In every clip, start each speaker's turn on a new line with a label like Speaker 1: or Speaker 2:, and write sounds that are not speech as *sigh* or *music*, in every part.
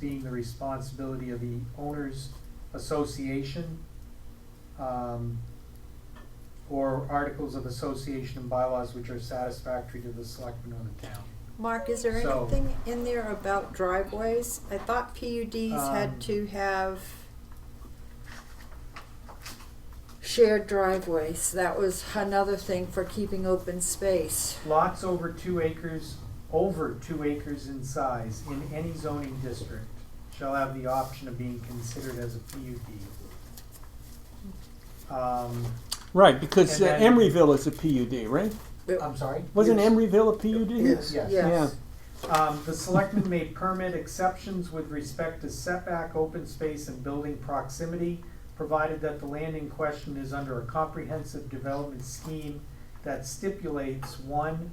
Speaker 1: being the responsibility of the owners association, um, or articles of association and bylaws which are satisfactory to the selectmen of the town.
Speaker 2: Mark, is there
Speaker 1: So-
Speaker 2: anything in there about driveways? I thought PUDs
Speaker 1: Um,
Speaker 2: had to have shared driveways. That was another thing for keeping open space.
Speaker 1: Lots over two acres, over two acres in size in any zoning district shall have the option of being considered as a PUD. Um,
Speaker 3: Right, because
Speaker 1: And
Speaker 3: uh,
Speaker 1: then-
Speaker 3: Emeryville is a PUD, right?
Speaker 2: It-
Speaker 1: I'm sorry?
Speaker 3: Wasn't
Speaker 1: Yes.
Speaker 3: Emeryville a PUD?
Speaker 1: Yes. Yes.
Speaker 2: Yes.
Speaker 1: Um, the selectmen may permit exceptions with respect to setback, open space, and building proximity, provided that the land in question is under a comprehensive development scheme that stipulates, one,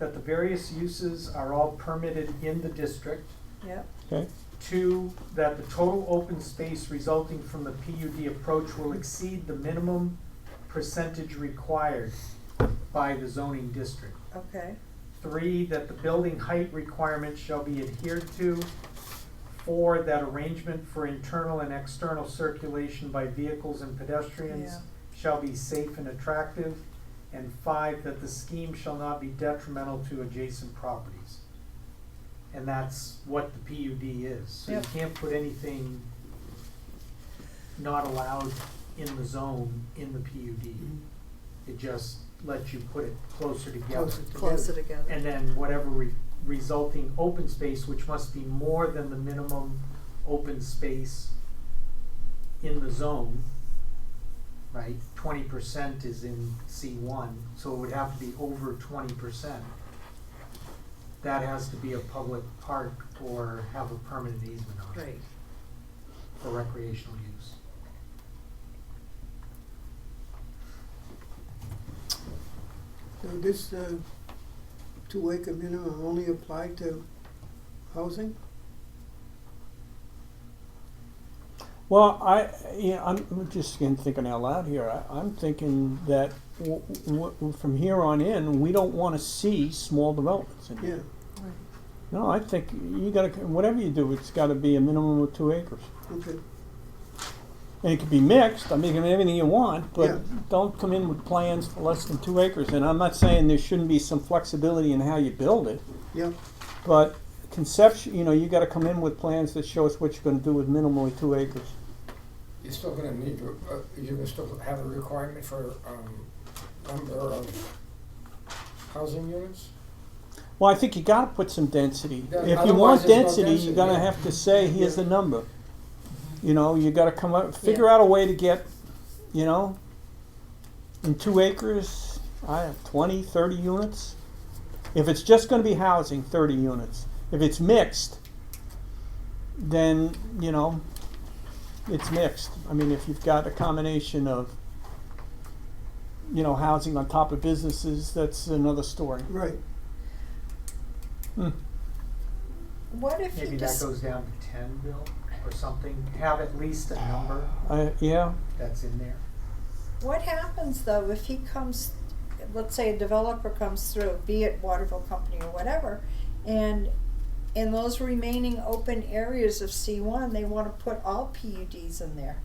Speaker 1: that the various uses are all permitted in the district,
Speaker 2: Yep.
Speaker 3: Okay.
Speaker 1: Two, that the total open space resulting from the PUD approach will exceed the minimum percentage required by the zoning district.
Speaker 2: Okay.
Speaker 1: Three, that the building height requirements shall be adhered to. Four, that arrangement for internal and external circulation by vehicles and pedestrians
Speaker 2: Yeah.
Speaker 1: shall be safe and attractive. And five, that the scheme shall not be detrimental to adjacent properties. And that's what the PUD is. So you
Speaker 2: Yep.
Speaker 1: can't put anything not allowed in the zone in the PUD.
Speaker 2: Mm-hmm.
Speaker 1: It just lets you put it closer together.
Speaker 2: Closer together.
Speaker 1: And then whatever re- resulting open space, which must be more than the minimum open space in the zone, right? Twenty percent is in C one, so it would have to be over twenty percent. That has to be a public park or have a permanent easement on it
Speaker 2: Right.
Speaker 1: for recreational use.
Speaker 4: So this uh, two acre minimum only apply to housing?
Speaker 3: Well, I, yeah, I'm I'm just again thinking out loud here. I, I'm thinking that w- w- from here on in, we don't want to see small developments. In
Speaker 4: Yeah,
Speaker 3: here. No, I think you got to whatever you do, it's got to be a minimum of two acres,
Speaker 4: okay.
Speaker 3: and it could be mixed. I mean, it can be anything you want, but
Speaker 4: Yeah.
Speaker 3: don't come in with plans for less than two acres. And I'm not saying there shouldn't be some flexibility in how you build it.
Speaker 4: Yeah,
Speaker 3: But conception, you know, you gotta come in with plans that show us what you're gonna do with minimally two acres.
Speaker 5: You're still gonna need, to, uh, you're gonna still have a requirement for, um, number of housing units?
Speaker 3: Well, I think you gotta put some density.
Speaker 5: Yeah,
Speaker 3: If you
Speaker 5: otherwise
Speaker 3: want
Speaker 5: there's no
Speaker 3: density, you're
Speaker 5: density,
Speaker 3: gonna
Speaker 5: yeah.
Speaker 3: have to say, here's the
Speaker 4: Yeah.
Speaker 3: number. You know, you gotta come up, figure out a way to get, you know, in two acres, I have 20, 30 units. If it's just gonna be housing, thirty units. If it's mixed, then, you know, it's mixed. I mean, if you've got a combination of, you know, housing on top of businesses, that's another story.
Speaker 4: right.
Speaker 3: Hmm.
Speaker 2: What if you
Speaker 1: Maybe that
Speaker 2: just,
Speaker 1: goes down to ten, Bill, or something, have at least a number
Speaker 3: I, yeah,
Speaker 1: that's in there.
Speaker 2: what happens though if he comes, let's say a developer comes through, be it Waterville Company or whatever, and in those remaining open areas of C one, they wanna put all PUDs in there.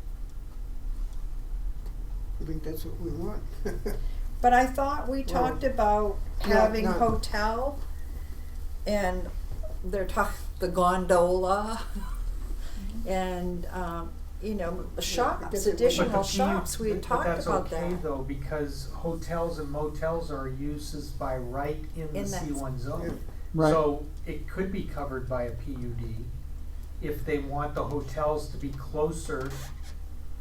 Speaker 4: I think that's what we want. *laughs*
Speaker 2: But I thought we talked about
Speaker 4: No,
Speaker 2: having
Speaker 4: no.
Speaker 2: hotel and they're talk, the gondola and, um, you know, shops,
Speaker 4: different-
Speaker 2: additional
Speaker 1: But the PU
Speaker 2: shops, we had
Speaker 1: but
Speaker 2: talked about
Speaker 1: That's okay
Speaker 2: that.
Speaker 1: though, because hotels and motels are uses by right in the
Speaker 2: In that-
Speaker 1: C one zone.
Speaker 3: right.
Speaker 1: So it could be covered by a PUD if they want the hotels to be closer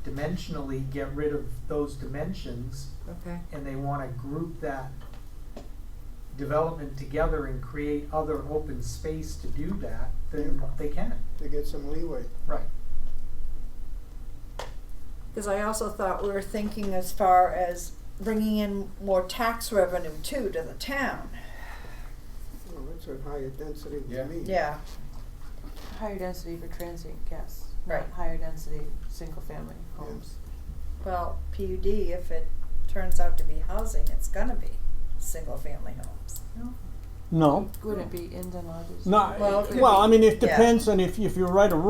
Speaker 1: dimensionally, get rid of those dimensions,
Speaker 2: Okay.
Speaker 1: and they wanna group that development together and create other open space to do that, then
Speaker 4: Yeah.
Speaker 1: they can,
Speaker 4: To get some leeway.
Speaker 1: right.
Speaker 2: Cause I also thought we were thinking as far as bringing in more tax revenue too to the town.
Speaker 4: Well, that's a higher density
Speaker 5: Yeah.
Speaker 4: to me.
Speaker 2: Yeah,
Speaker 6: Higher density for transient guests. not
Speaker 2: Right.
Speaker 6: Higher density, single-family homes.
Speaker 2: well, PUD, if it turns out to be housing, it's gonna be single-family homes.
Speaker 3: No,
Speaker 7: Would it be inns and lodges?
Speaker 3: no.
Speaker 6: Well, it could
Speaker 3: Well,
Speaker 6: be.
Speaker 3: I mean, it
Speaker 6: Yeah.
Speaker 3: depends on if if you write a